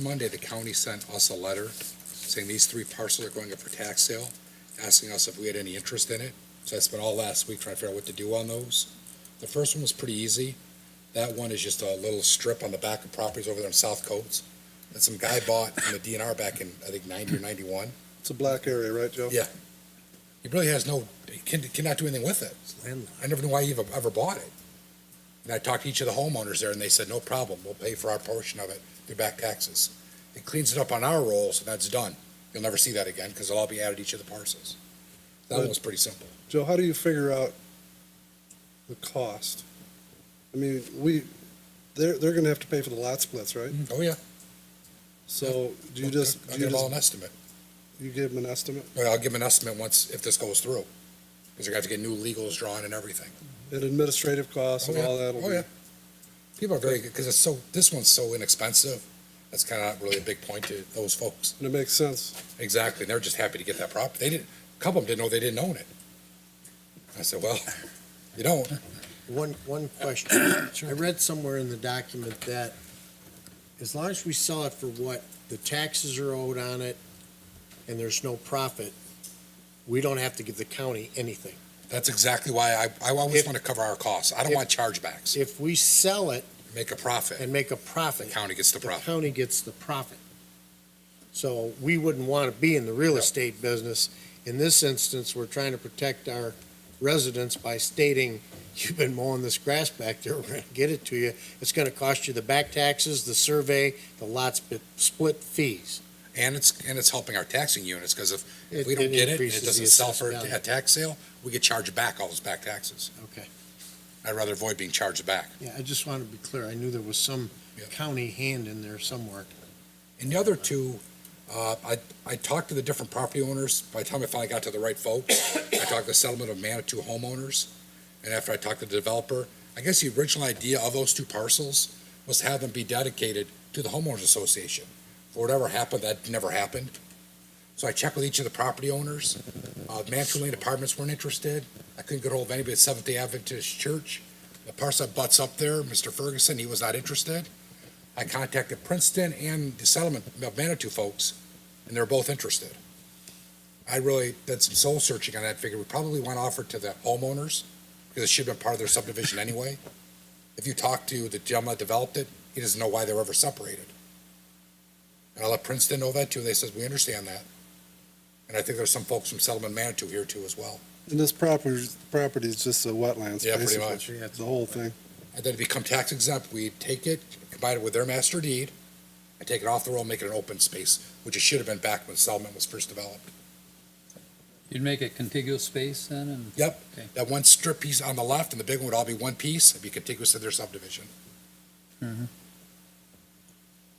Monday, the county sent us a letter saying these three parcels are going up for tax sale, asking us if we had any interest in it. So I spent all last week trying to figure out what to do on those. The first one was pretty easy. That one is just a little strip on the back of properties over there in South Coates that some guy bought from the DNR back in, I think, ninety or ninety-one. It's a black area, right, Joe? Yeah. He really has no, he can, cannot do anything with it. I never knew why he ever, ever bought it. And I talked to each of the homeowners there, and they said, no problem, we'll pay for our portion of it through back taxes. It cleans it up on our roll, so that's done. You'll never see that again, because it'll all be added to each of the parcels. That one was pretty simple. Joe, how do you figure out the cost? I mean, we, they're, they're gonna have to pay for the lot splits, right? Oh, yeah. So mm-hmm. do you just, I'll do you give them all just, an estimate. you give them an estimate? Well, I'll give them an estimate once, if this goes through. Because they're gonna have to get new legals drawn and everything. And administrative costs and Oh, yeah. all that will Oh, be, yeah. People are very good, because it's so, this one's so inexpensive. That's kind of really a big point to those folks. and it makes sense. Exactly, and they're just happy to get that property. They didn't, a couple of them didn't know they didn't own it. I said, well, you don't. One, one question. I read somewhere in the document that as long as we sell it for what the taxes are owed on it and there's no profit, we don't have to give the county anything. That's exactly why I, I always If- want to cover our costs. I don't if- want chargebacks. If we sell it Make a profit, and make a the profit, county gets the the profit. county gets the profit. So we wouldn't want to be in the real estate business. In this instance, we're trying to protect our residents by stating, you've been mowing this grass back there, we're going to get it to you. It's going to cost you the back taxes, the survey, the lot split, split fees. And it's, and it's helping our taxing units, because if if It- we don't it get it, and increases it the doesn't sell assessed for value. a tax sale, we get charged back all those back taxes. Okay. I'd rather avoid being charged back. Yeah, I just wanted to be clear. I knew there was some Yeah. county hand in there somewhere. And the other two, uh, I, I talked to the different property owners. By the time I finally got to the right folks, I talked to the settlement of Manitou homeowners. And after I talked to the developer, I guess the original idea of those two parcels was to have them be dedicated to the homeowners association. For whatever happened, that never happened. So I checked with each of the property owners. Uh, Manitou Lane Apartments weren't interested. I couldn't get hold of anybody at Seventh Day Adventist Church. The parcel that butts up there, Mr. Ferguson, he was not interested. I contacted Princeton and the settlement of Manitou folks, and they're both interested. I really did some soul searching on that, figure we probably want to offer it to the homeowners, because it should have been part of their subdivision anyway. If you talk to the gentleman that developed it, he doesn't know why they were ever separated. And I let Princeton know that too, they says, we understand that. And I think there's some folks from settlement Manitou here too as well. And this property, property is just a wetlands, Yeah, pretty much. basically, Yeah, it's the whole thing. And then it become tax exempt, we take it, combine it with their master deed, and take it off the roll, make it an open space, which it should have been back when settlement was first developed. You'd make a contiguous space then, and Yep, Okay. that one strip piece on the left and the big one would all be one piece, it'd be contiguous to their subdivision.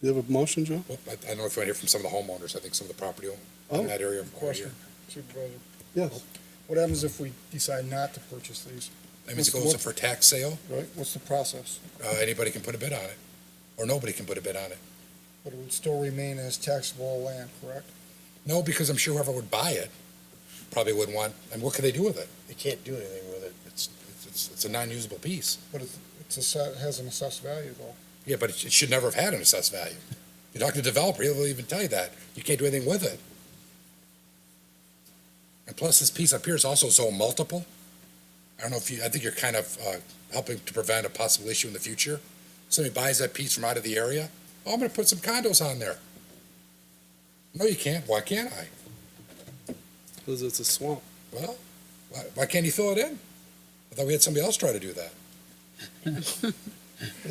Do you have a motion, Joe? Well, I, I don't know if you want to hear from some of the homeowners, I think some of the property owners Oh. in that area. are here. Question, Supervisor. Yes. What happens if we decide not to purchase these, That means it goes up for tax sale, right? What's the process? uh, anybody can put a bid on it, or nobody can put a bid on it. But it would still remain as taxable land, correct? No, because I'm sure whoever would buy it probably would want, and what could they do with it? They can't do anything with it. It's, it's, it's a non-usable piece. But it's, it's a, set- has an assessed value though. Yeah, but it it should never have had an assessed value. You talk to the developer, he'll even tell you that. You can't do anything with it. And plus, this piece up here is also zone multiple. I don't know if you, I think you're kind of uh, helping to prevent a possible issue in the future. Somebody buys that piece from out of the area, oh, I'm gonna put some condos on there. No, you can't. Why can't I? Cause it's a swamp. Well, why, why can't you fill it in? I thought we had somebody else try to do that.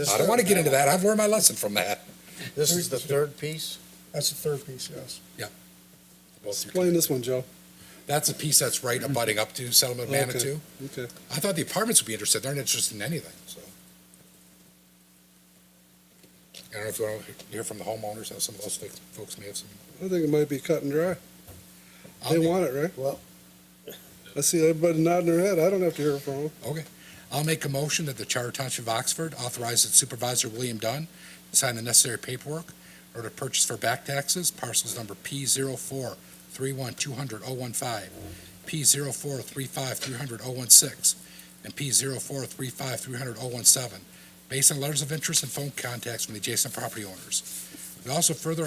I don't wanna get into that. I've learned my lesson from that. This is the third piece? That's the third piece, yes. Explain this one, Joe. That's a piece that's right abutting up to settlement of Okay. Manitou. Okay. I thought the apartments would be interested. They're not interested in anything, so. I don't know if you want to hear from the homeowners, how some of those folks- folks may have some. I think it might be cut and dry. They I'll- want it, right? Well- I see everybody nodding their head. I don't have to hear from them. I'll make a motion that the Charter Township of Oxford authorizes Supervisor William Dunn to sign the necessary paperwork or to purchase for back taxes parcels number P zero four three one two hundred oh one five, P zero four three five three hundred oh one six, and P zero four three five three hundred oh one seven, based on letters of interest and phone contacts from the adjacent property owners. It also further